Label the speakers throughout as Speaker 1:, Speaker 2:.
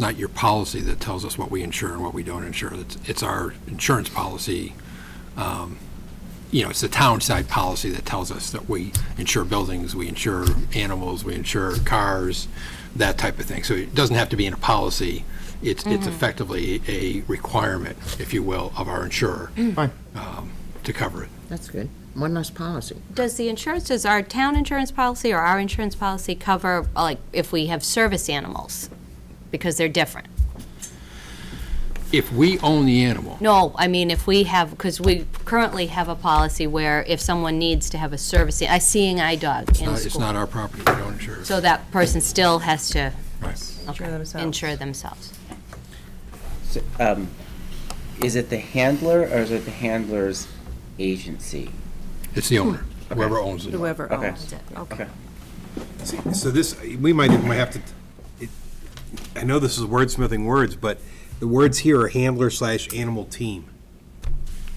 Speaker 1: not your policy that tells us what we insure and what we don't insure. It's, it's our insurance policy. um, You know, it's the town side policy that tells us that we insure buildings, we insure animals, we insure cars, that type of thing. So it doesn't have to be in a policy. It's, it's effectively a requirement, if you will, of our insurer
Speaker 2: Fine.
Speaker 1: um, to cover it.
Speaker 2: That's good. One less policy.
Speaker 3: Does the insurance, does our town insurance policy or our insurance policy cover, like, if we have service animals? Because they're different.
Speaker 1: If we own the animal,
Speaker 3: No, I mean, if we have, because we currently have a policy where if someone needs to have a service, a seeing eye dog in
Speaker 1: uh,
Speaker 3: a
Speaker 1: it's
Speaker 3: school.
Speaker 1: not our property, we don't insure it.
Speaker 3: So that person still has to
Speaker 1: Right.
Speaker 3: okay,
Speaker 4: themselves.
Speaker 3: insure themselves.
Speaker 5: Is it the handler or is it the handler's agency?
Speaker 1: It's the owner, whoever owns it.
Speaker 4: Whoever
Speaker 6: Oh,
Speaker 5: Okay.
Speaker 4: owns it.
Speaker 5: Okay.
Speaker 7: See, So this, we might even have to, it- I know this is wordsmithing words, but the words here are handler slash animal team.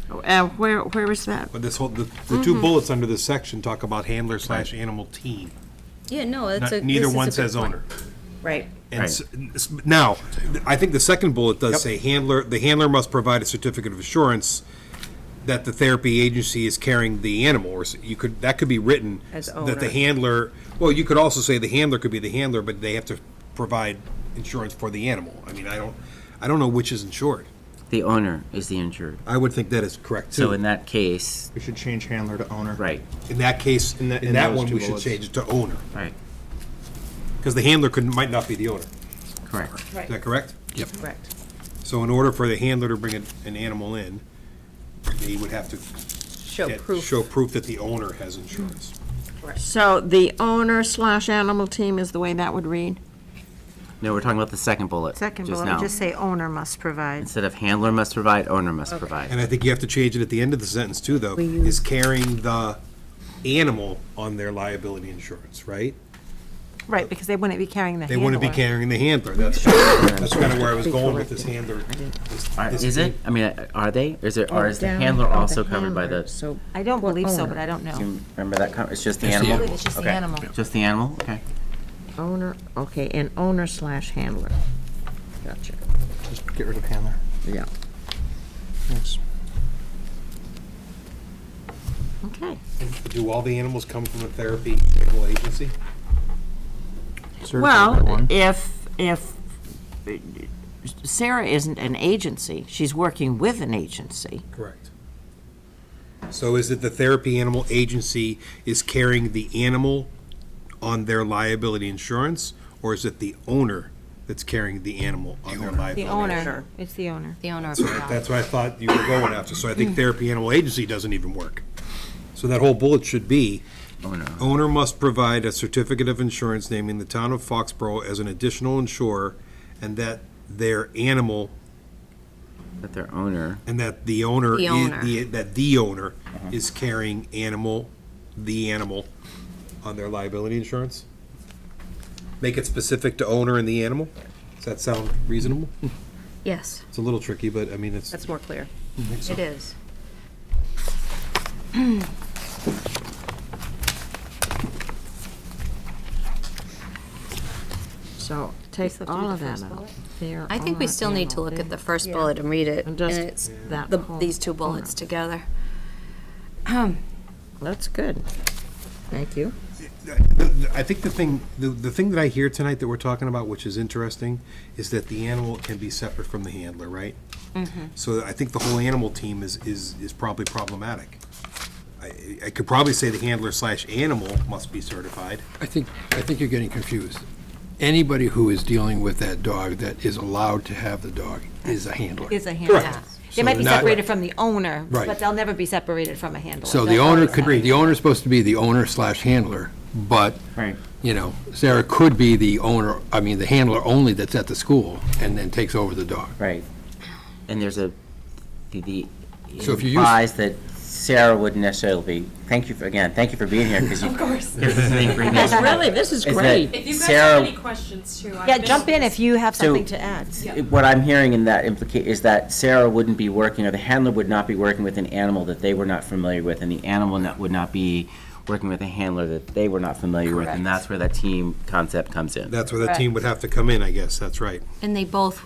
Speaker 8: Uh, where, where is that?
Speaker 7: But this whole, the, the two bullets under this section talk about handler slash animal team.
Speaker 3: Yeah, no,
Speaker 7: Not-
Speaker 3: that's a.
Speaker 7: Neither one says owner.
Speaker 4: Right.
Speaker 7: And s- s- now, th- I think the second bullet does say handler, the handler must provide a certificate of assurance that the therapy agency is carrying the animal, or s- you could, that could be written.
Speaker 4: As
Speaker 7: That the
Speaker 4: owner.
Speaker 7: handler, well, you could also say the handler could be the handler, but they have to provide insurance for the animal. I mean, I don't, I don't know which is insured.
Speaker 5: The owner is the insured.
Speaker 7: I would think that is correct,
Speaker 5: So
Speaker 7: too.
Speaker 5: in that case,
Speaker 2: We should change handler to owner.
Speaker 5: right,
Speaker 7: In that case, in
Speaker 2: in the- in
Speaker 7: that
Speaker 2: those
Speaker 7: one,
Speaker 2: two
Speaker 7: we should
Speaker 2: bullets.
Speaker 7: change it to owner,
Speaker 5: right,
Speaker 7: because the handler could, might not be the owner.
Speaker 5: correct.
Speaker 7: Is that correct?
Speaker 1: Yep.
Speaker 4: Correct.
Speaker 7: So in order for the handler to bring an, an animal in, they would have to
Speaker 4: Show
Speaker 7: get-
Speaker 4: proof.
Speaker 7: Show proof that the owner has insurance.
Speaker 8: So the owner slash animal team is the way that would read?
Speaker 5: No, we're talking about the second bullet.
Speaker 6: Second
Speaker 5: just
Speaker 6: bullet, we
Speaker 5: now.
Speaker 6: just say owner must provide.
Speaker 5: Instead of handler must provide, owner must provide.
Speaker 7: And I think you have to change it at the end of the sentence too, though, is carrying the animal on their liability insurance, right?
Speaker 6: Right, because they wouldn't be carrying the
Speaker 7: They
Speaker 6: handler.
Speaker 7: wouldn't be carrying the handler. That's, that's kind of where I was going with this handler.
Speaker 5: Are-
Speaker 7: This-
Speaker 5: Is it? I mean, uh, are they? Is there, or is the
Speaker 2: Down,
Speaker 5: handler
Speaker 2: oh, the
Speaker 5: also covered by
Speaker 2: handler.
Speaker 5: the,
Speaker 2: So
Speaker 6: I don't
Speaker 2: Well,
Speaker 6: believe so,
Speaker 2: owner.
Speaker 6: but I don't know.
Speaker 5: do you remember that, con- it's just the
Speaker 1: It's the
Speaker 5: animal?
Speaker 1: animal.
Speaker 6: It's just the
Speaker 5: Okay.
Speaker 6: animal.
Speaker 5: Just the animal, okay.
Speaker 2: owner, okay, and owner slash handler. Gotcha.
Speaker 9: Just get rid of handler.
Speaker 2: Yeah.
Speaker 9: Yes.
Speaker 2: Okay.
Speaker 7: Do all the animals come from a therapy animal agency?
Speaker 9: Certified by
Speaker 2: Well,
Speaker 9: one.
Speaker 2: if, if Sarah isn't an agency, she's working with an agency.
Speaker 7: Correct. So is it the therapy animal agency is carrying the animal on their liability insurance? Or is it the owner that's carrying the animal on their liability?
Speaker 6: The owner, it's the owner.
Speaker 3: The owner of the dog.
Speaker 7: That's what I thought you were going after, so I
Speaker 6: Mm-hmm.
Speaker 7: think therapy animal agency doesn't even work. So that whole bullet should be,
Speaker 5: Owner.
Speaker 7: owner must provide a certificate of insurance naming the town of Foxborough as an additional insurer, and that their animal,
Speaker 5: That their owner,
Speaker 7: and that the owner,
Speaker 3: The
Speaker 7: is-
Speaker 3: owner.
Speaker 7: the- that the owner is carrying animal, the animal, on their liability insurance? Make it specific to owner and the animal? Does that sound reasonable?
Speaker 3: Yes,
Speaker 7: It's a little tricky, but I mean, it's,
Speaker 4: That's more clear.
Speaker 3: it is.
Speaker 2: So take
Speaker 6: still have to
Speaker 2: all
Speaker 6: do the
Speaker 2: of that
Speaker 6: first
Speaker 2: out.
Speaker 6: bullet?
Speaker 2: Their
Speaker 3: I think we
Speaker 2: owner,
Speaker 3: still need to
Speaker 2: animal,
Speaker 3: look at the
Speaker 2: their-
Speaker 3: first bullet and read it,
Speaker 2: And
Speaker 3: and
Speaker 2: just
Speaker 3: it's
Speaker 2: that
Speaker 3: the-
Speaker 2: whole
Speaker 3: these two bullets
Speaker 2: owner.
Speaker 3: together.
Speaker 2: That's good. Thank you.
Speaker 7: I think the thing, the, the thing that I hear tonight that we're talking about, which is interesting, is that the animal can be separate from the handler, right? So I think the whole animal team is, is, is probably problematic. I, I could probably say the handler slash animal must be certified.
Speaker 1: I think, I think you're getting confused. Anybody who is dealing with that dog that is allowed to have the dog is a handler.
Speaker 6: Is a handler. They
Speaker 1: So
Speaker 6: might be
Speaker 1: not-
Speaker 6: separated from the owner,
Speaker 1: Right.
Speaker 6: but they'll never be separated from a handler.
Speaker 1: So the
Speaker 6: They'll
Speaker 1: owner
Speaker 6: always
Speaker 1: could,
Speaker 6: have-
Speaker 1: the owner's supposed to be the owner slash handler, but,
Speaker 5: Right.
Speaker 1: you know, Sarah could be the owner, I mean, the handler only that's at the school and then takes over the dog.
Speaker 5: right. And there's a, the, the it
Speaker 1: So if you use-
Speaker 5: implies that Sarah wouldn't necessarily be, thank you, for again, thank you for being here, because you. Of course. Here's the thing, bring this
Speaker 2: Really, this is
Speaker 5: Is
Speaker 2: great.
Speaker 5: that
Speaker 10: If you guys
Speaker 5: Sarah-
Speaker 10: have any questions too, I've
Speaker 6: Yeah,
Speaker 10: been-
Speaker 6: jump in if you have
Speaker 5: So-
Speaker 6: something to add.
Speaker 5: What I'm hearing in that implica, is that Sarah wouldn't be working, or the handler would not be working with an animal that they were not familiar with, and the animal not- would not be working with a handler that they were not familiar with, and that's where that team concept comes in.
Speaker 7: That's where the team would have to come in, I guess, that's right.
Speaker 3: And they both